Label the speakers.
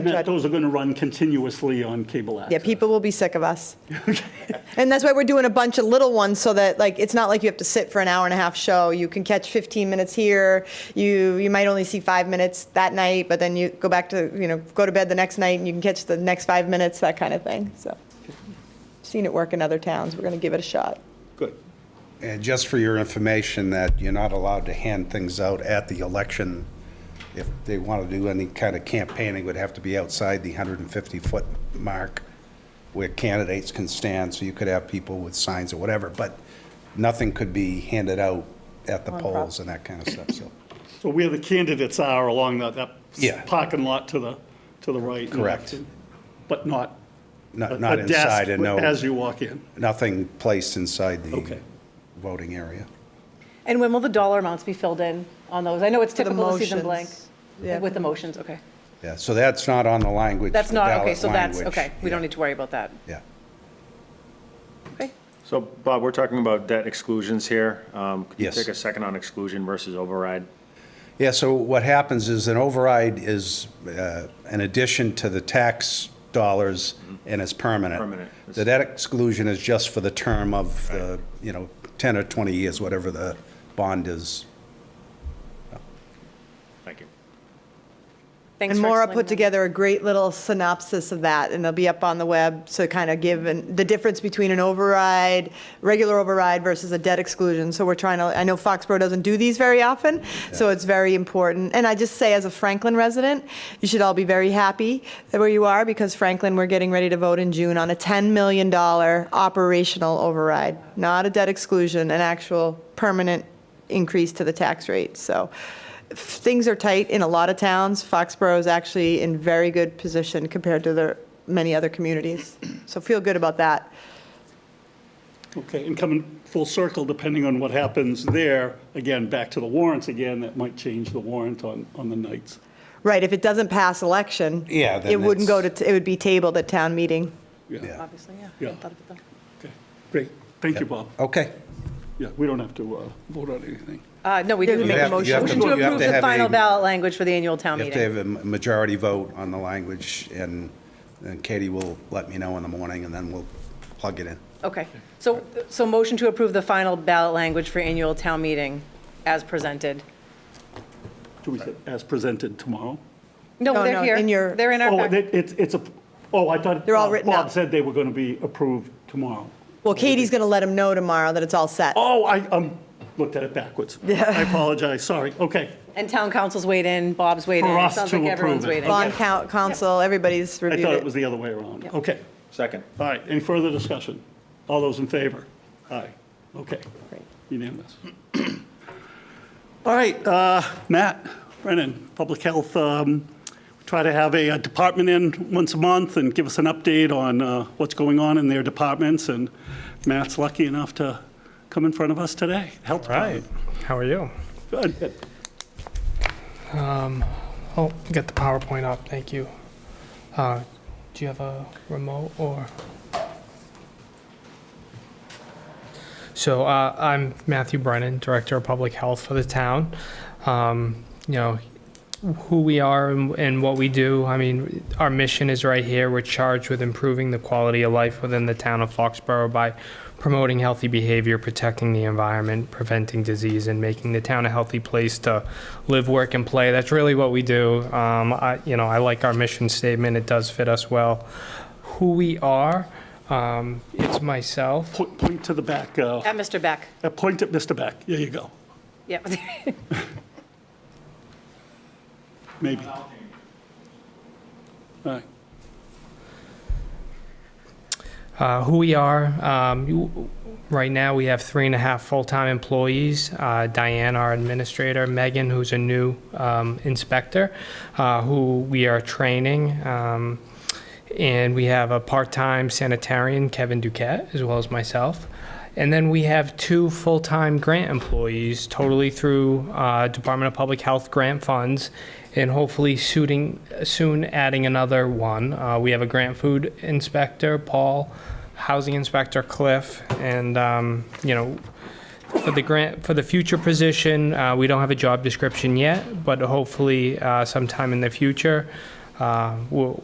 Speaker 1: That- Those are going to run continuously on cable access.
Speaker 2: Yeah, people will be sick of us. And that's why we're doing a bunch of little ones so that like it's not like you have to sit for an hour and a half show. You can catch 15 minutes here. You you might only see 5 minutes that night, but then you go back to, you know, go to bed the next night and you can catch the next 5 minutes, that kind of thing. So seen it work in other towns. We're going to give it a shot.
Speaker 1: Good.
Speaker 3: And just for your information, that you're not allowed to hand things out at the election. If they want to do any kind of campaigning, it would have to be outside the 150-foot mark where candidates can stand, so you could have people with signs or whatever, but nothing could be handed out at the polls and that kind of stuff, so.
Speaker 1: So where the candidates are along that, that
Speaker 3: Yeah.
Speaker 1: parking lot to the, to the right. and
Speaker 3: Correct.
Speaker 1: left, But not. a-
Speaker 3: Not not
Speaker 1: a desk
Speaker 3: inside and no,
Speaker 1: As you walk in.
Speaker 3: nothing placed inside the
Speaker 1: Okay.
Speaker 3: voting area.
Speaker 4: And when will the dollar amounts be filled in on those? I know it's
Speaker 2: the
Speaker 4: typical to see them blank.
Speaker 2: motions. Yeah.
Speaker 4: With the motions, okay.
Speaker 3: Yeah, so that's not on the language.
Speaker 4: That's
Speaker 3: the
Speaker 4: not, okay,
Speaker 3: ballot
Speaker 4: so that's,
Speaker 3: language.
Speaker 4: okay. We don't
Speaker 3: Yeah,
Speaker 4: need to worry about that.
Speaker 3: Yeah.
Speaker 4: Okay.
Speaker 5: So Bob, we're talking about debt exclusions here. Um, Could you
Speaker 3: Yes.
Speaker 5: take a second on exclusion versus override?
Speaker 3: Yeah, so what happens is an override is uh, an addition to the tax dollars and it's permanent.
Speaker 5: Permanent.
Speaker 3: The debt exclusion is just for the term of, the, you know, 10 or 20 years, whatever the bond is.
Speaker 5: Thank you.
Speaker 4: Thanks
Speaker 2: And
Speaker 4: for
Speaker 2: Maura
Speaker 4: explaining
Speaker 2: put
Speaker 4: that.
Speaker 2: together a great little synopsis of that, and they'll be up on the web to kind of give an- the difference between an override, regular override versus a debt exclusion. So we're trying to, I know Foxborough doesn't do these very often, so it's very important. And I just say, as a Franklin resident, you should all be very happy that where you are, because Franklin, we're getting ready to vote in June on a $10 million operational override, not a debt exclusion, an actual permanent increase to the tax rate. So things are tight in a lot of towns. Foxborough is actually in very good position compared to the many other communities. So feel good about that.
Speaker 1: Okay, and coming full circle, depending on what happens there, again, back to the warrants again, that might change the warrant on, on the nights.
Speaker 2: Right, if it doesn't pass election,
Speaker 3: Yeah, then
Speaker 2: it wouldn't go
Speaker 3: it's-
Speaker 2: to, it would be tabled at town meeting.
Speaker 3: Yeah.
Speaker 4: Obviously, yeah.
Speaker 1: Yeah.
Speaker 4: Hadn't thought of it, though.
Speaker 1: Okay, great. Thank you, Bob.
Speaker 3: Okay.
Speaker 1: Yeah, we don't have to uh, vote on anything.
Speaker 4: Uh, no, we do
Speaker 2: You
Speaker 4: make
Speaker 2: have
Speaker 4: a
Speaker 2: to- you
Speaker 4: motion.
Speaker 2: have
Speaker 3: to-
Speaker 4: Motion to
Speaker 3: you have
Speaker 4: approve
Speaker 3: to
Speaker 4: the
Speaker 3: have
Speaker 4: final
Speaker 3: a-
Speaker 4: ballot language for the annual town
Speaker 3: You have to have
Speaker 4: meeting.
Speaker 3: a ma- majority vote on the language and and Katie will let me know in the morning and then we'll plug it in.
Speaker 4: Okay. So, so motion to approve the final ballot language for annual town meeting as presented.
Speaker 1: Do we, say as presented tomorrow?
Speaker 4: No,
Speaker 2: No,
Speaker 4: they're
Speaker 2: no,
Speaker 4: here.
Speaker 2: in your-
Speaker 4: They're in our
Speaker 1: Oh, it-
Speaker 4: packet.
Speaker 1: it's, it's a, oh, I thought.
Speaker 2: They're all
Speaker 1: uh,
Speaker 2: written
Speaker 1: Bob
Speaker 2: out.
Speaker 1: said they were going to be approved tomorrow.
Speaker 2: Well, Katie's going to let him know tomorrow that it's all set.
Speaker 1: Oh, I, um, looked at it backwards. I apologize, sorry. Okay,
Speaker 4: And town council's weighed in, Bob's weighed in.
Speaker 1: For
Speaker 4: It
Speaker 1: us
Speaker 4: Sounds
Speaker 1: to
Speaker 4: like everyone's
Speaker 1: approve it.
Speaker 4: weighed in.
Speaker 2: Bond
Speaker 4: Yeah.
Speaker 2: count, council, everybody's
Speaker 1: I
Speaker 2: reviewed
Speaker 1: thought it was
Speaker 2: it.
Speaker 1: the other way around.
Speaker 4: Yep.
Speaker 1: Okay,
Speaker 5: Second.
Speaker 1: all right, any further discussion? All those in favor? Aye, okay, unanimous. All right, uh, Matt Brennan, Public Health, um, we try to have a uh, department in once a month and give us an update on uh, what's going on in their departments, and Matt's lucky enough to come in front of us today, Health
Speaker 6: Right.
Speaker 1: Department.
Speaker 6: How are you?
Speaker 1: Good.
Speaker 6: Oh, get the PowerPoint up. Thank you. Uh, do you have a remote or? So uh, I'm Matthew Brennan, Director of Public Health for the town. Um, you know who we are and, and what we do. I mean, our mission is right here. We're charged with improving the quality of life within the town of Foxborough by promoting healthy behavior, protecting the environment, preventing disease, and making the town a healthy place to live, work, and play. That's really what we do. Um, I, you know, I like our mission statement. It does fit us well. Who we are. Um, it's myself.
Speaker 1: Po- Point to the back, uh,
Speaker 4: At Mr. Beck.
Speaker 1: uh, point at Mr. Beck, there you go,
Speaker 4: Yep.
Speaker 1: maybe. All right.
Speaker 6: uh, who we are. Um, you- right now, we have three and a half full-time employees. Uh, Diane, our administrator, Megan, who's a new um, inspector, uh, who we are training. Um, and we have a part-time sanitarian, Kevin Duquette, as well as myself. And then we have two full-time grant employees, totally through uh, Department of Public Health grant funds, and hopefully suiting, soon adding another one. Uh, we have a grant food inspector, Paul, housing inspector, Cliff, and um, you know, for the grant for the future position, uh, we don't have a job description yet, but hopefully uh, sometime in the future. Uh, we'll,